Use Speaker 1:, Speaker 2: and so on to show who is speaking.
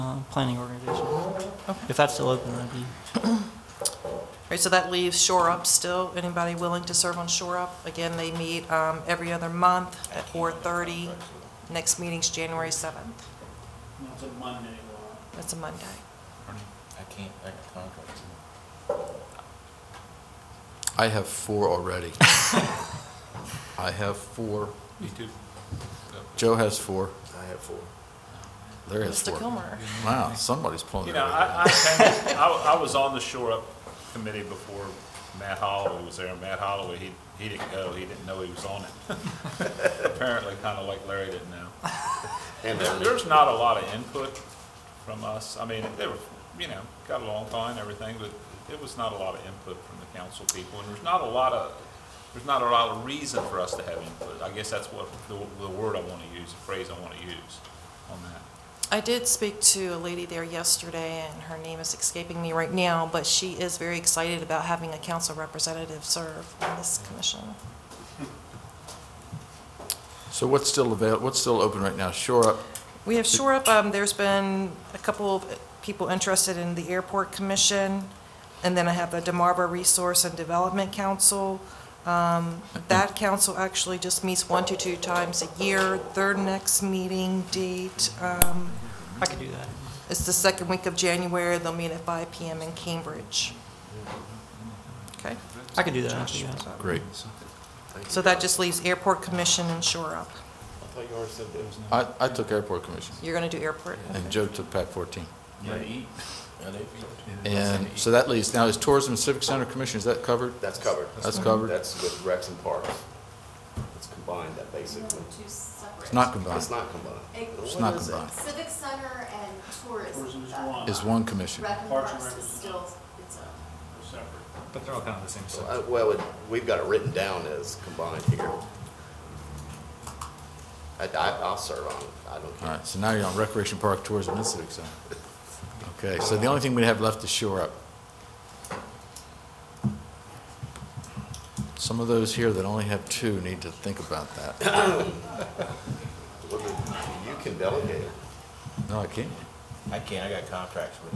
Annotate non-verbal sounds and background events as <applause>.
Speaker 1: um, planning organization. If that's still open, that'd be,
Speaker 2: All right, so that leaves Shore Up still. Anybody willing to serve on Shore Up? Again, they meet um, every other month at 4:30. Next meeting's January 7th.
Speaker 3: It's a Monday, Laura.
Speaker 2: That's a Monday.
Speaker 4: I can't, I got conflicts.
Speaker 5: I have four <laughs> already. I have four.
Speaker 6: Me too.
Speaker 5: Joe has four. I have four. Larry has
Speaker 2: Mr.
Speaker 5: four.
Speaker 2: Kilmer.
Speaker 5: Wow, somebody's pulling
Speaker 6: You
Speaker 5: their
Speaker 6: know,
Speaker 5: weight out.
Speaker 6: I, I, tend- I, I was on the Shore Up Committee before Matt Holloway was there, and Matt Holloway, he, he didn't go, he didn't know he was on it. <laughs> Apparently, kinda like Larry didn't know. And there- there's not a lot of input from us, I mean, they were, you know, got along fine, and everything, but it was not a lot of input from the council people, and there's not a lot of, there's not a lot of reason for us to have input, I guess that's what, the, the word I wanna use, the phrase I wanna use on that.
Speaker 2: I did speak to a lady there yesterday, and her name is escaping me right now, but she is very excited about having a council representative serve on this commission.
Speaker 5: So what's still avail, what's still open right now? Shore Up,
Speaker 2: We have Shore Up, um, there's been a couple of people interested in the Airport Commission, and then I have the Demarba Resource and Development Council. Um, That council actually just meets one to two times a year. Their next meeting date um,
Speaker 1: I could do that.
Speaker 2: is the second week of January. They'll meet at 5 PM in Cambridge. Okay,
Speaker 1: I could do that, actually, yeah.
Speaker 5: great.
Speaker 2: so that just leaves Airport Commission and Shore Up.
Speaker 5: I, I took Airport Commission,
Speaker 2: You're going to do Airport?
Speaker 5: and Joe took Pac 14.
Speaker 4: Yeah, they eat. Yeah, they eat.
Speaker 5: And so that leaves, now is Tourism and Civic Center Commission, is that covered?
Speaker 7: That's covered.
Speaker 5: That's covered?
Speaker 7: That's with Rex and Parks. It's combined, that basically.
Speaker 8: Two separate.
Speaker 5: It's not combined.
Speaker 7: It's not combined.
Speaker 8: It's
Speaker 5: It's
Speaker 7: What
Speaker 5: not
Speaker 7: is it?
Speaker 5: combined.
Speaker 8: Civic Center and tourism.
Speaker 3: Tourism is
Speaker 8: uh,
Speaker 3: one.
Speaker 5: It's one commission.
Speaker 8: Rec and
Speaker 3: Parks and
Speaker 8: Parks
Speaker 3: Rec
Speaker 8: is
Speaker 3: is
Speaker 8: still its own.
Speaker 3: They're separate.
Speaker 9: But they're all kind of the same
Speaker 7: So,
Speaker 9: stuff.
Speaker 7: uh, Well, it- we've got it written down as combined here. I, I- I'll serve on it, I don't
Speaker 5: All
Speaker 7: care.
Speaker 5: right, so now you're on Recreation Park, Tourism and Civic Center. Okay, so the only thing we have left is Shore Up. Some of those here that only have two need to think about that.
Speaker 7: What do <coughs> You you can delegate.
Speaker 5: No, I can't.
Speaker 4: I can't, I got contracts with